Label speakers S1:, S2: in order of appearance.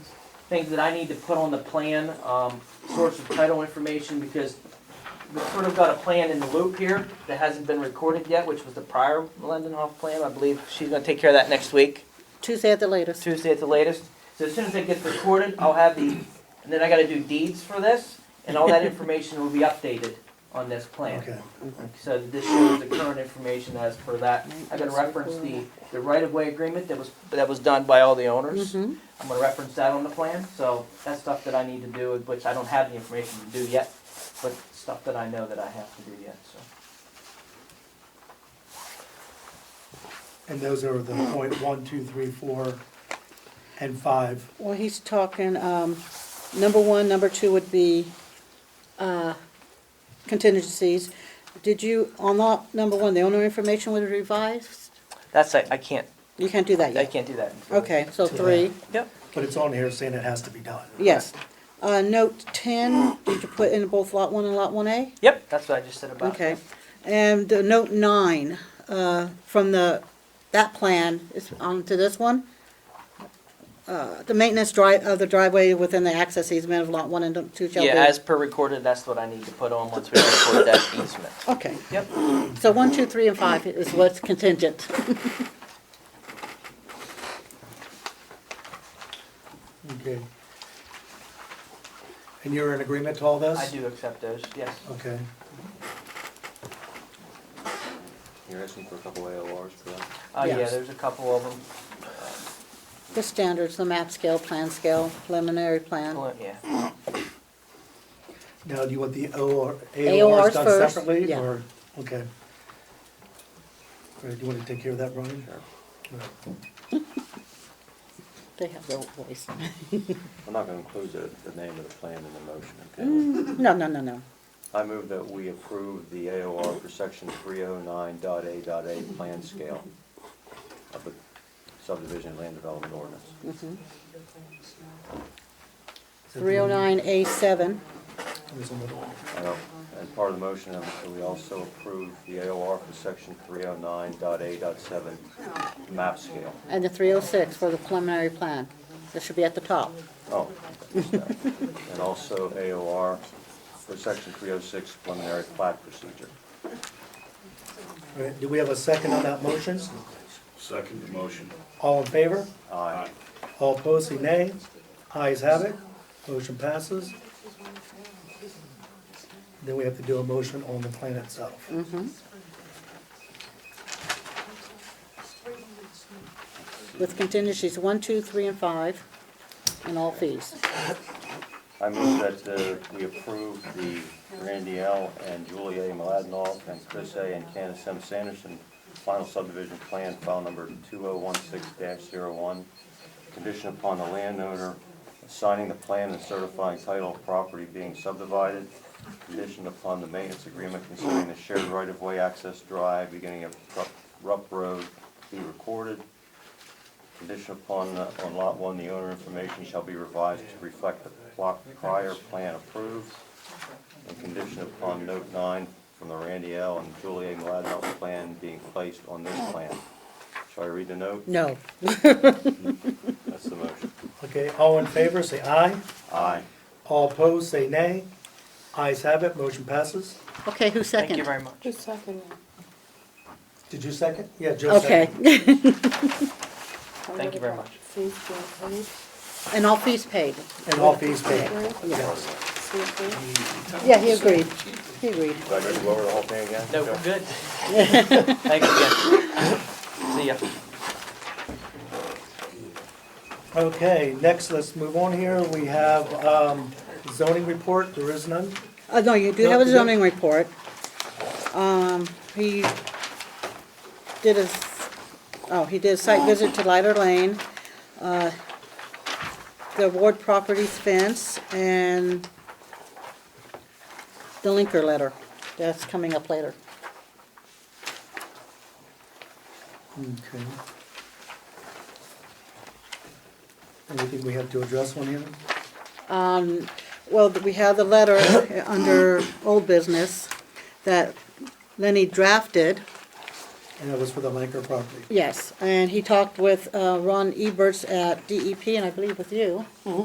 S1: things that I need to put on the plan, um, source of title information, because we've sort of got a plan in the loop here that hasn't been recorded yet, which was the prior Lindenhoff plan. I believe she's gonna take care of that next week,
S2: Tuesday at the latest.
S1: Tuesday at the latest. So as soon as it gets recorded, I'll have the, and then I gotta do deeds for this, and all that information will be updated on this plan.
S3: Okay.
S1: So this shows the current information as per that. I'm gonna reference the, the right-of-way agreement that was, that was done by all the owners.
S2: Mhm.
S1: I'm gonna reference that on the plan, so that's stuff that I need to do, which I don't have the information to do yet, but stuff that I know that I have to do yet, so.
S3: And those are the point one, two, three, four, and five.
S2: Well, he's talking, um, number one, number two would be, uh, contingencies. Did you, on lot number one, the owner information was revised?
S1: That's, I, I can't,
S2: You can't do that
S1: I
S2: yet.
S1: can't do that. until-
S2: Okay, so three,
S1: Yep.
S3: But it's on here saying it has to be done.
S2: yes. Uh, note ten, did you put in both lot one and lot one A?
S1: Yep, that's what I just said about.
S2: Okay, and uh, note nine, uh, from the, that plan is on to this one. Uh, the maintenance drive, of the driveway within the access easement of lot one and two shall be.
S1: Yeah, as per recorded, that's what I need to put on once we record that easement.
S2: Okay,
S1: Yep.
S2: so one, two, three, and five is what's contingent.
S3: Okay. And you're in agreement to all this?
S1: I do accept those, yes.
S3: Okay.
S4: You're asking for a couple AORs, correct?
S1: Uh, yeah,
S2: Yes.
S1: there's a couple of them.
S2: The standards, the map scale, plan scale, preliminary plan.
S1: Well, Yeah.
S3: Now, do you want the OR,
S2: AORs
S3: AORs done
S2: first,
S3: separately,
S2: yeah.
S3: or, okay. All right, do you want to take care of that, Brian?
S4: Sure.
S3: All right.
S2: They have their voice.
S4: I'm not gonna include the, the name of the plan in the motion, okay?
S2: No, no, no, no.
S4: I move that we approve the AOR for section three oh nine dot A dot A plan scale of the subdivision land development ordinance.
S1: Mm-hmm.
S3: Is that the one?
S2: Three oh nine A seven,
S3: There's another one.
S4: I know, and part of the motion, um, that we also approve the AOR for section three oh nine dot A dot seven map scale.
S2: and the three oh six for the preliminary plan. This should be at the top.
S4: Oh. okay, And also AOR for section three oh six preliminary plat procedure.
S3: All right, do we have a second on that motion?
S5: Second the motion.
S3: All in favor?
S4: Aye.
S3: All opposed, say nay. Ayes have it, motion passes. Then we have to do a motion on the plan itself.
S2: with contingencies one, two, three, and five, and all fees.
S4: I move that uh, we approve the Randy L. and Julia A. Maladnoff and Chris A. and Candace M. Sanderson final subdivision plan, file number 2016-01, conditioned upon the landowner signing the plan and certifying title of property being subdivided, conditioned upon the maintenance agreement concerning the shared right-of-way access drive beginning of Rupp- Rupp Road be recorded, Condition upon, uh, on lot one, the owner information shall be revised to reflect the pl- prior plan approved. And condition upon note nine from the Randy L. and Julie A. Mladenhoff plan being placed on this plan. Shall I read the note?
S2: No.
S4: That's the motion.
S3: Okay, all in favor, say aye.
S4: Aye.
S3: All opposed, say nay. Ayes have it, motion passes.
S2: Okay, who's second?
S1: Thank you very much.
S6: Who's second?
S3: Did you second? Yeah, Joe
S2: Okay,
S3: seconded.
S1: Thank you very much.
S6: Please, please,
S2: and all fees paid.
S3: And all fees paid.
S2: Yes.
S6: please, please.
S2: Yeah, he agreed. He agreed.
S4: Do I go to go over the whole thing again?
S1: No,
S4: Okay.
S1: we're good. Thanks again. See ya.
S3: Okay, next, let's move on here. We have um, zoning report, there is none.
S2: Uh, no, you do
S3: No,
S2: have a
S3: you don't.
S2: zoning report. Um, he did a, oh, he did a site visit to Lighter Lane, uh, the Ward Properties fence, and the linker letter, that's coming up later.
S3: Okay. Anything we have to address on here?
S2: Um, well, we have the letter under old business that Lenny drafted.
S3: And that was for the Lanker property.
S2: E Yes, and he talked with, uh, Ron Eberts at DEP, and I believe with you.